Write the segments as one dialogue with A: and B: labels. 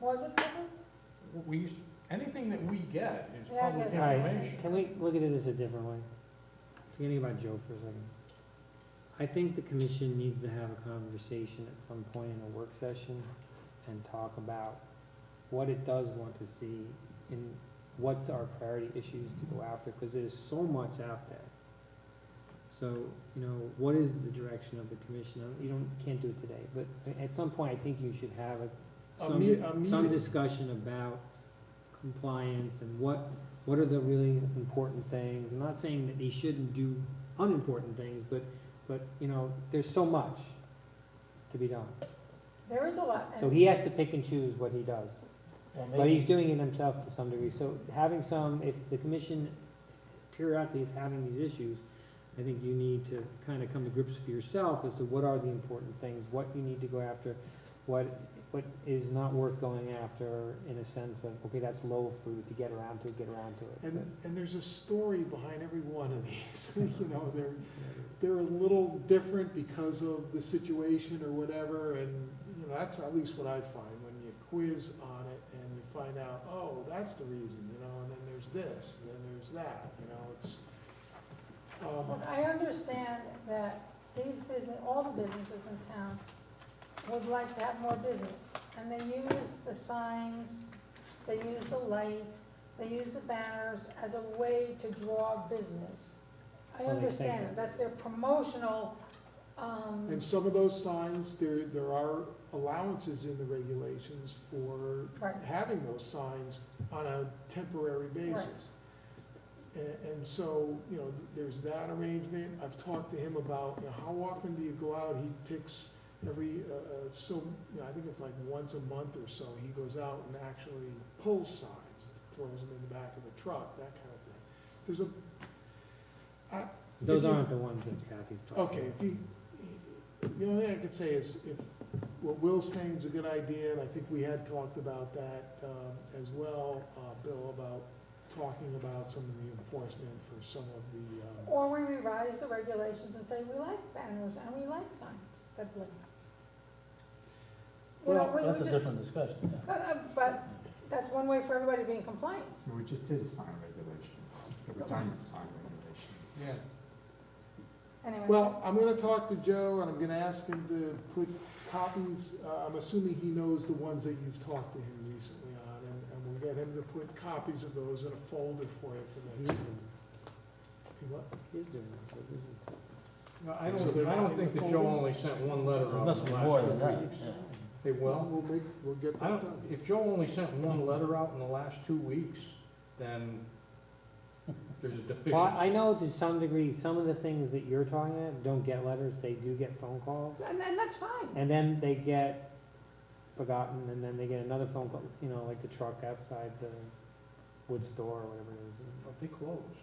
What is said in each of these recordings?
A: Was it covered?
B: We used, anything that we get is
A: Yeah, I
B: public
A: get it.
B: information.
C: Can we look at it as a different way? Forgetting about Joe for a second. I think the commission needs to have a conversation at some point in a work session and talk about what it does want to see and what's our priority issues to go after, because there's so much out there. So, you know, what is the direction of the commission? Uh, You don't, can't do it today, but a- at some point, I think you should have a,
B: Uh,
D: A
C: some,
D: me- a
C: some
D: meeting.
C: discussion about compliance and what, what are the really important things? I'm not saying that they shouldn't do unimportant things, but, but, you know, there's so much to be done.
A: There is a lot. and-
C: So he has to pick and choose what he does.
D: Well,
C: But he's
D: maybe,
C: doing it himself to some degree, so having some, if the commission periodically is having these issues, I think you need to kind of come to grips for yourself as to what are the important things, what you need to go after, what, what is not worth going after in a sense of, okay, that's low fruit, if you get around to it, get around to it.
D: and,
C: But,
D: and there's a story behind every one of these, you know, they're,
C: you know,
D: they're a little different because of the situation or whatever, and, you know, that's at least what I find, when you quiz on it and you find out, oh, that's the reason, you know, and then there's this, and then there's that, you know, it's, um,
A: Look, I understand that these business, all the businesses in town would like to have more business. And they use the signs, they use the lights, they use the banners as a way to draw business. I
C: Well, they think
A: understand
C: that.
A: it, that's their promotional, um.
D: and some of those signs, there, there are allowances in the regulations for
A: Right.
D: having those signs on a temporary basis. And, and so, you know, there's that arrangement, I've talked to him about, you know, how often do you go out, he picks every, uh, uh, so, you know, I think it's like once a month or so, he goes out and actually pulls signs, throws them in the back of the truck, that kind of thing. There's a, I. if
C: Those
D: you-
C: aren't the ones that Kathy's talking about.
D: Okay, if you, the only thing I could say is if, what Will's saying is a good idea, and I think we had talked about that, um, as well, uh, Bill, about talking about some of the enforcement for some of the, um,
A: Or we revise the regulations and say, we like banners and we like signs that blink. You know,
D: Well,
A: we- we
E: That's a
A: just-
E: different discussion, yeah.
A: Uh, uh, But that's one way for everybody to be in compliance.
F: We just did a sign regulation, a redundant sign regulations.
D: yeah.
A: Anyway.
D: Well, I'm gonna talk to Joe, and I'm gonna ask him to put copies, uh, I'm assuming he knows the ones that you've talked to him recently on, and, and we'll get him to put copies of those in a folder for you for the next meeting. He what?
C: He's doing it, but isn't it?
B: No, I
D: So they're
B: don't, I
D: not
B: don't
D: in
B: think
D: the
B: that Joe
D: folder?
B: only sent one letter
E: There
B: out
E: must
B: in
E: be
B: the
E: more
B: last
E: than
B: two
E: that,
B: weeks.
E: yeah.
B: They will.
D: We'll make, we'll get
B: I don't,
D: that done.
B: if Joe only sent one letter out in the last two weeks, then there's a deficiency.
C: Well, I know to some degree, some of the things that you're talking about don't get letters, they do get phone calls.
A: And then that's fine.
C: And then they get forgotten, and then they get another phone call, you know, like the truck outside the woods door or whatever it is. and
B: But They closed.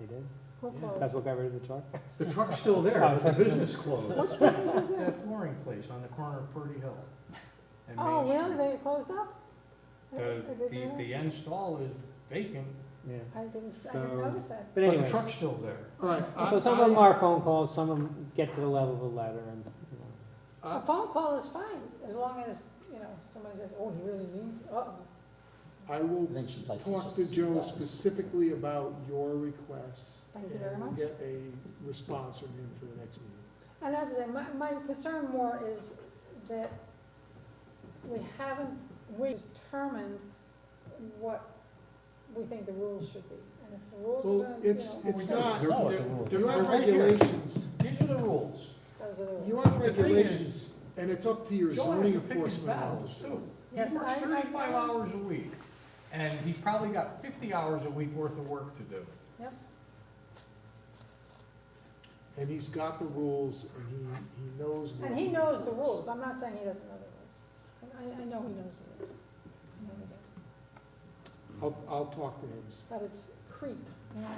C: They did?
A: Who
B: Yeah.
A: called?
C: That's what got rid of the truck?
B: The truck's still there, but the business closed.
A: Which business is it?
B: That flooring place on the corner of Purdy Hill. and Main
A: Oh, really?
B: Street.
A: They closed up? I
B: The,
A: didn't
B: the,
A: know.
B: the end stall is vacant,
C: Yeah.
A: I didn't, I
C: So-
A: didn't notice that.
C: But
B: but the
C: anyway,
B: truck's still there.
D: All right. I-
C: so some
D: I-
C: of them are phone calls, some of them get to the level of a letter and, you know.
A: A
B: uh,
D: I-
A: phone call is fine, as long as, you know, somebody says, oh, he really needs, it." uh-oh.
D: I
E: I
D: will
E: think she'd like to
D: talk
E: just
D: to
E: see
D: Joe
E: that.
D: specifically about your requests.
A: Thank you very
D: And we'll
A: much.
D: get a response from him for the next meeting.
A: And that's it. My, my concern more is that we haven't, we determined what we think the rules should be. And if the rules are
D: Well,
A: gonna, you
D: it's-
A: know,
D: it's
A: those
D: not-
B: They're-
E: No,
B: they're-
E: the rules.
B: they're-
D: You
B: they're
D: have
B: right here.
D: regulations,
B: These are the rules.
A: are the rules.
D: you have
B: The thing is-
D: regulations, and it's up to your
B: Joe has
D: zoning
B: to pick his
D: enforcement
B: battles
D: officer.
B: too. He
A: Yes,
B: works
A: I- I-
B: thirty-five hours a week, and he's probably got fifty hours a week worth of work to do.
D: And he's got the rules, and he, he knows. what
A: And he
D: the
A: knows the rules, I'm not saying he doesn't know the rules. I, I know he knows the rules. I know he does.
D: I'll, I'll talk to him.
A: But it's creep, you know,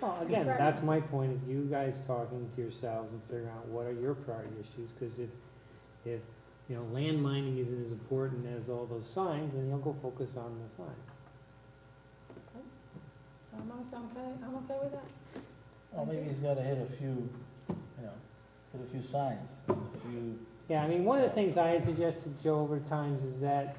C: Well, again,
A: Right.
C: that's my point of you guys talking to yourselves and figuring out what are your priority issues, because if, if, you know, land mining isn't as important as all those signs, then you'll go focus on the sign.
A: I'm, o- I'm okay, I'm okay with that.
E: Well, maybe he's gotta hit a few, you know, hit a few signs, a few
C: Yeah, I mean, one of the things I had suggested, Joe, over times is that